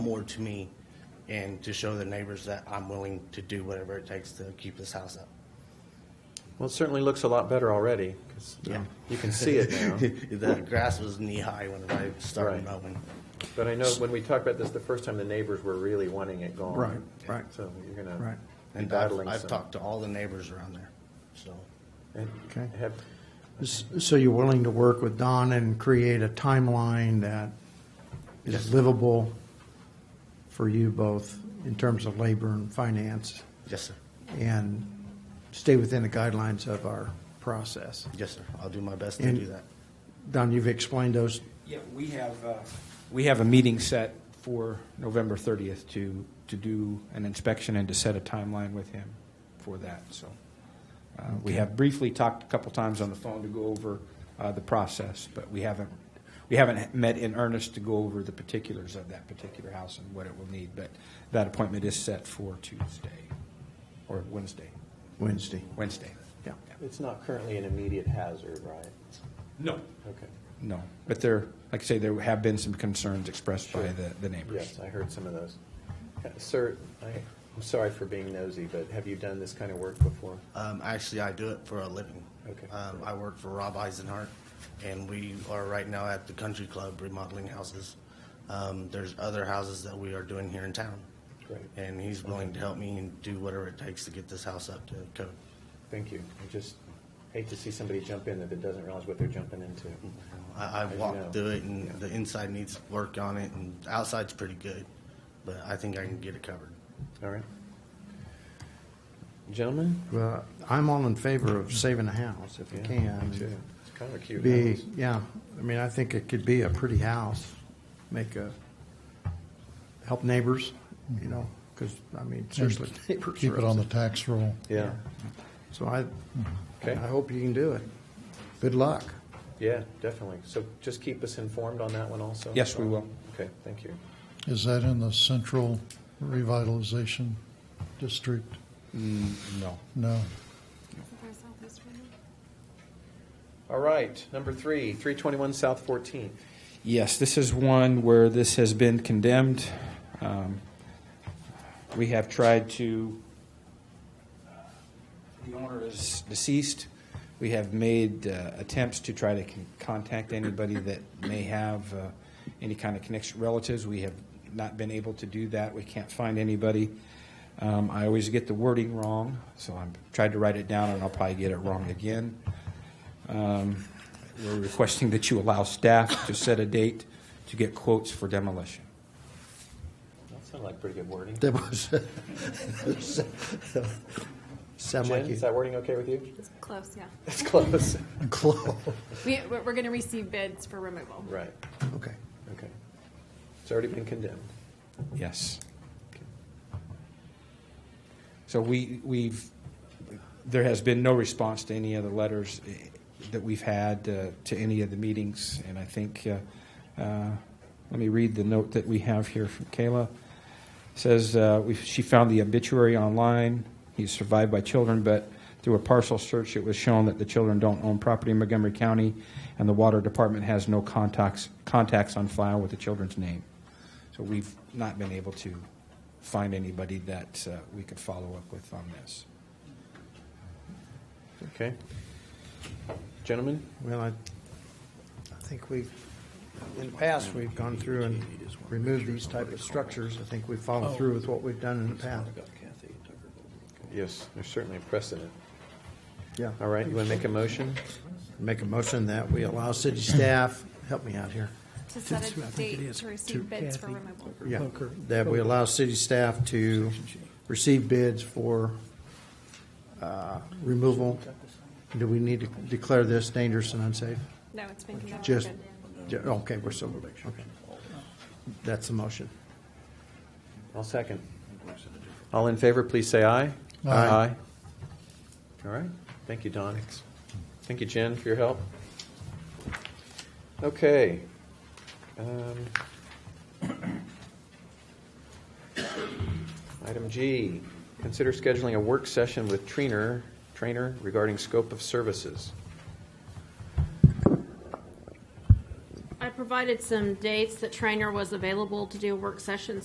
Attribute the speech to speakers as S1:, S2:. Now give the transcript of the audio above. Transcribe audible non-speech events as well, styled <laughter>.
S1: more to me and to show the neighbors that I'm willing to do whatever it takes to keep this house up.
S2: Well, it certainly looks a lot better already, 'cause, um,
S1: Yeah.
S2: you can see it
S3: <laughs>
S1: <laughs>
S2: now.
S1: The grass was knee-high when I started
S2: Right.
S1: mowing.
S2: But I know when we talked about this, the first time the neighbors were really wanting it gone.
S3: Right, right,
S2: So you're gonna
S3: right.
S2: be
S1: And I've,
S2: battling
S1: I've
S2: some.
S1: talked to all the neighbors around there, so.
S2: And
S3: Okay.
S2: have,
S3: S- So you're willing to work with Don and create a timeline that is livable for you both in terms of labor and finance
S1: Yes, sir.
S3: and stay within the guidelines of our process?
S1: Yes, sir. I'll do my best to
S3: And-
S1: do that.
S3: Don, you've explained those,
S4: Yeah, we have, uh, we have a meeting set for November 30th to, to do an inspection and to set a timeline with him for that, so. uh, We have briefly talked a couple times on the phone to go over uh, the process, but we haven't, we haven't met in earnest to go over the particulars of that particular house and what it will need, but that appointment is set for Tuesday, or Wednesday,
S3: Wednesday.
S4: Wednesday.
S3: Yeah.
S2: it's not currently an immediate hazard, right?
S4: No.
S2: Okay.
S4: No, but there, like I say, there have been some concerns expressed by the, the neighbors.
S2: Yes, I heard some of those. Uh, Sir, I, I'm sorry for being nosy, but have you done this kind of work before?
S1: Um, actually, I do it for a living.
S2: Okay.
S1: Um, I work for Rob Eisenhart, and we are right now at the country club remodeling houses. Um, there's other houses that we are doing here in town.
S2: Great.
S1: And he's willing to help me and do whatever it takes to get this house up to code.
S2: Thank you. I just hate to see somebody jump in that doesn't realize what they're jumping into.
S3: Mm-hmm.
S1: I, I've
S2: I know.
S1: walked through it, and the inside needs work on it, and outside's pretty good, but I think I can get it covered.
S2: All right. Gentlemen?
S3: Well, I'm all in favor of saving a house if you
S2: Yeah, me too.
S3: can.
S2: It's kind of a cute
S3: Be,
S2: house.
S3: yeah, I mean, I think it could be a pretty house, make a, help neighbors, you know, because, I mean, seriously, neighbors.
S5: Keep
S3: are
S5: it on the
S3: upset.
S5: tax roll.
S2: Yeah,
S3: So I,
S2: Okay.
S3: I hope you can do it. Good luck.
S2: yeah, definitely. So just keep us informed on that one also?
S4: Yes, we will.
S2: Okay, thank you.
S5: Is that in the central revitalization district?
S4: No.
S5: No.
S2: All right, number three, 321 South 14.
S4: Yes, this is one where this has been condemned. Um, We have tried to, the owner is deceased. We have made uh, attempts to try to con- contact anybody that may have uh, any kind of connection, relatives. We have not been able to do that. We can't find anybody. Um, I always get the wording wrong, so I'm tried to write it down, and I'll probably get it wrong again. Um, We're requesting that you allow staff to set a date to get quotes for demolition.
S2: That sounded like pretty good wording.
S3: That was, <laughs> sound
S2: Jen,
S3: like
S2: <laughs>
S3: you,
S5: <laughs>
S2: is that wording okay with you?
S6: It's close, yeah.
S2: It's close.
S3: close,
S6: We, we're we're gonna receive bids for removal.
S2: Right,
S3: okay.
S2: okay. It's already been condemned.
S4: Yes. So we, we've, there has been no response to any of the letters eh, that we've had uh, to any of the meetings, and I think, uh, uh, let me read the note that we have here from Kayla. Says, uh, we- she found the obituary online, he's survived by children, but through a parcel search, it was shown that the children don't own property in Montgomery County, and the water department has no contacts, contacts on file with the children's name. So we've not been able to find anybody that uh, we could follow up with on this.
S2: Okay. Gentlemen?
S3: Well, I, I think we've, in the past, we've gone through and removed these type of structures. I think we've followed through with what we've done in the past.
S2: Yes, there's certainly a precedent.
S3: Yeah.
S2: All right, you want to make a motion?
S3: Make a motion that we allow city staff, help me out here.
S6: To set a date to receive bids for removal.
S3: Yeah, that we allow city staff to receive bids for uh, removal. Do we need to declare this dangerous and unsafe?
S6: No, it's been condemned.
S3: Just,
S6: Good.
S3: ju- okay, we're still, okay. That's the motion.
S2: I'll second. All in favor, please say aye.
S5: Aye.
S2: All right. Thank you, Don. Thank you, Jen, for your help. Okay. Um, <coughs> Item G, consider scheduling a work session with trainer, trainer regarding scope of services.
S7: I provided some dates that Trainer was available to do a work session,